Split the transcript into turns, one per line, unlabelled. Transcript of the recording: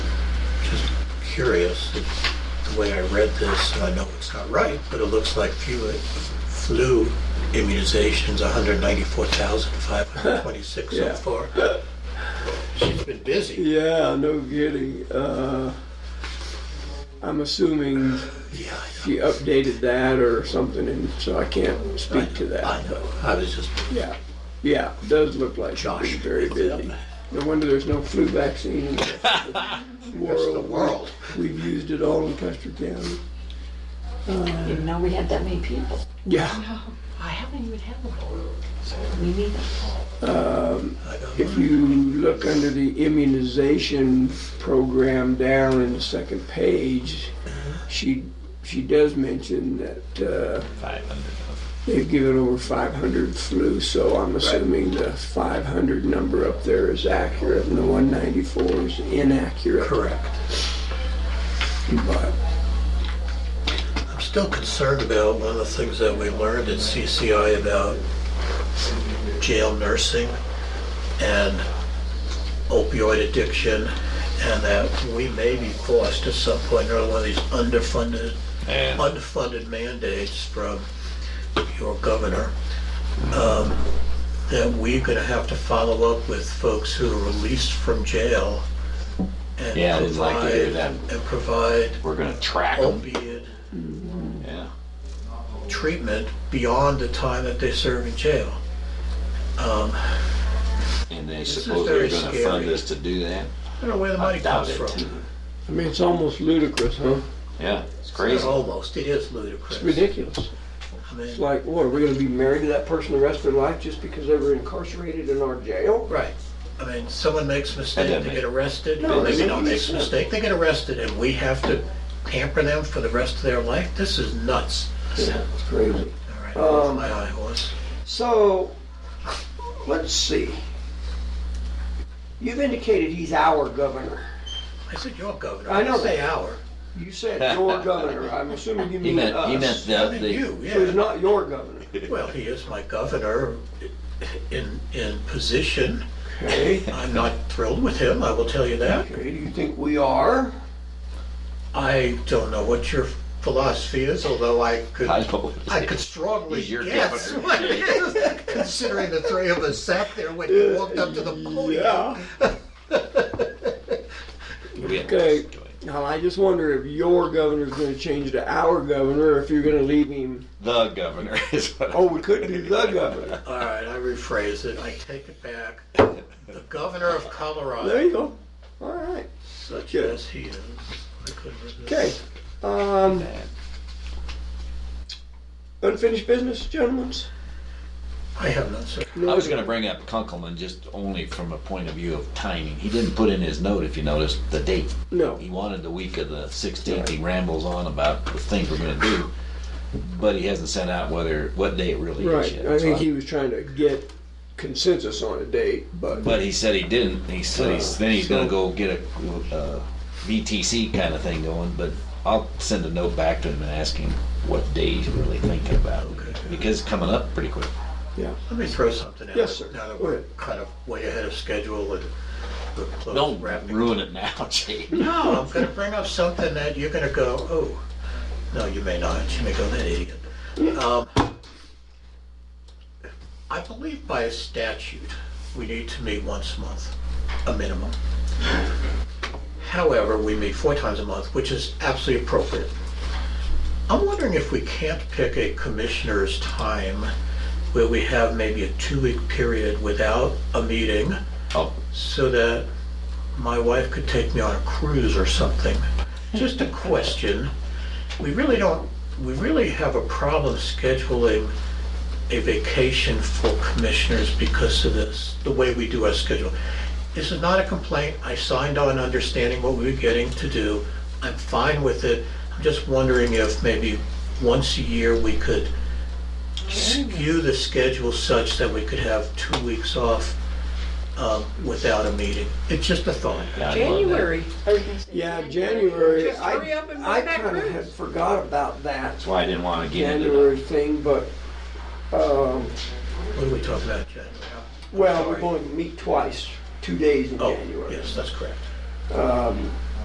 curious, the way I read this, and I know it's not right, but it looks like flu, flu immunizations, 194,526 so
Yeah.
far. She's been busy.
Yeah, no kidding. Uh, I'm assuming
Yeah, I know.
she updated that or something, and so I can't
I
speak to
know, I
that.
know. I was just,
Yeah, yeah, it does look like she's
Josh.
been very
picked it up.
busy. No wonder there's no flu vaccine in the
That's the world.
We've used it all in Custer County.
Didn't know we had that many people.
Yeah,
I haven't even had one. So we need them.
I know.
if you look under the immunization program down in the second page, she, she does mention that, uh,
500 of
They've given over 500 flu, so I'm assuming the 500 number up there is accurate and the 194 is inaccurate.
Correct.
But
I'm still concerned about one of the things that we learned at CCI about jail nursing and opioid addiction, and that we may be forced at some point or other one of these underfunded,
And-
unfunded mandates from your governor, um, that we're gonna have to follow up with folks who are released from jail and
Yeah, I didn't like to hear
provide,
that.
and provide
We're gonna track
Oh.
them.
opiate
Yeah.
treatment beyond the time that they serve in jail. Um,
And they
is
suppose
very
they're gonna
scary.
fund us to do that?
I don't know where the
I
money
doubt
comes
it.
from.
I mean, it's almost ludicrous, huh?
Yeah, it's
It's
crazy.
almost, it is
It's
ludicrous.
ridiculous.
I
It's
mean,
like, what, are we going to be married to that person the rest of their life just because they were incarcerated in our jail?
right. I mean, someone makes a mistake,
doesn't
they
make-
get arrested.
No,
Or
it
Maybe don't
doesn't make
make a
sense.
mistake, they get arrested and we have to pamper them for the rest of their life? This is nuts.
Yeah, it's crazy.
All right, off
Um,
my high horse.
So, let's see. You've indicated he's our governor.
I said, your governor.
I know
didn't Say our.
You said your governor. I'm assuming you
He
mean
meant, he meant
us.
I
the,
mean,
the,
you,
So he's
yeah.
Uh, not your governor.
Well, he is my governor in, in position.
Okay.
I'm not thrilled with him, I will tell you that.
Okay, do you think we are?
I don't know what your philosophy is, although I could,
I know what
I
it
could
is.
strongly
He's your
guess
governor.
what it is, considering the three of us sat there when you walked up to the podium.
We have
Okay.
to do it.
Now, I just wonder if your governor's gonna change to our governor, or if you're gonna leave him,
The governor is what.
oh, we could do the governor.
All right, I rephrase it, I take it back. The governor of
There
Colorado,
you go. All right,
such as he is. I couldn't resist.
okay. Um, unfinished business, gentlemen?
I have none, sir.
I was gonna bring up Kunkelman just only from a point of view of timing. He didn't put in his note, if you noticed, the date.
No,
He wanted the week of the sixteenth. He rambles on about the things we're gonna do. But he hasn't sent out whether, what day it really is
right,
yet.
I
So
think
I'm-
he was trying to get consensus on a date, but,
But he said he didn't. He said he's, then he's gonna go get a uh, VTC kind of thing going. But I'll send a note back to him and ask him what day he's really thinking about it because it's coming up pretty quick.
yeah.
Let me throw something out.
Yes, sir.
Now that
Go
we're
ahead.
kind of way ahead of schedule and we're close to
Don't
wrapping
ruin it now, Jay.
No, I'm gonna bring up something that you're gonna go, oh, no, you may not, you may go, that idiot. Um, I believe by statute, we need to meet once a month, a minimum. However, we meet four times a month, which is absolutely appropriate. I'm wondering if we can't pick a commissioner's time where we have maybe a two-week period without a meeting
Oh,
so that my wife could take me on a cruise or something. Just a question. We really don't, we really have a problem scheduling a vacation for commissioners because of this, the way we do our schedule. This is not a complaint. I signed on understanding what we were getting to do. I'm fine with it. I'm just wondering if maybe once a year we could skew the schedule such that we could have two weeks off um, without a meeting. It's just a thought.
God, I love that.
January.
Yeah, January,
Just hurry up and
I, I
make that
kinda had
cruise.
forgot about that
That's why I didn't want to get into
January
the
thing, but, um,
What are we talking about, January?
Well, we're going to meet twice, two days in
Oh,
January.
yes, that's correct.
Um,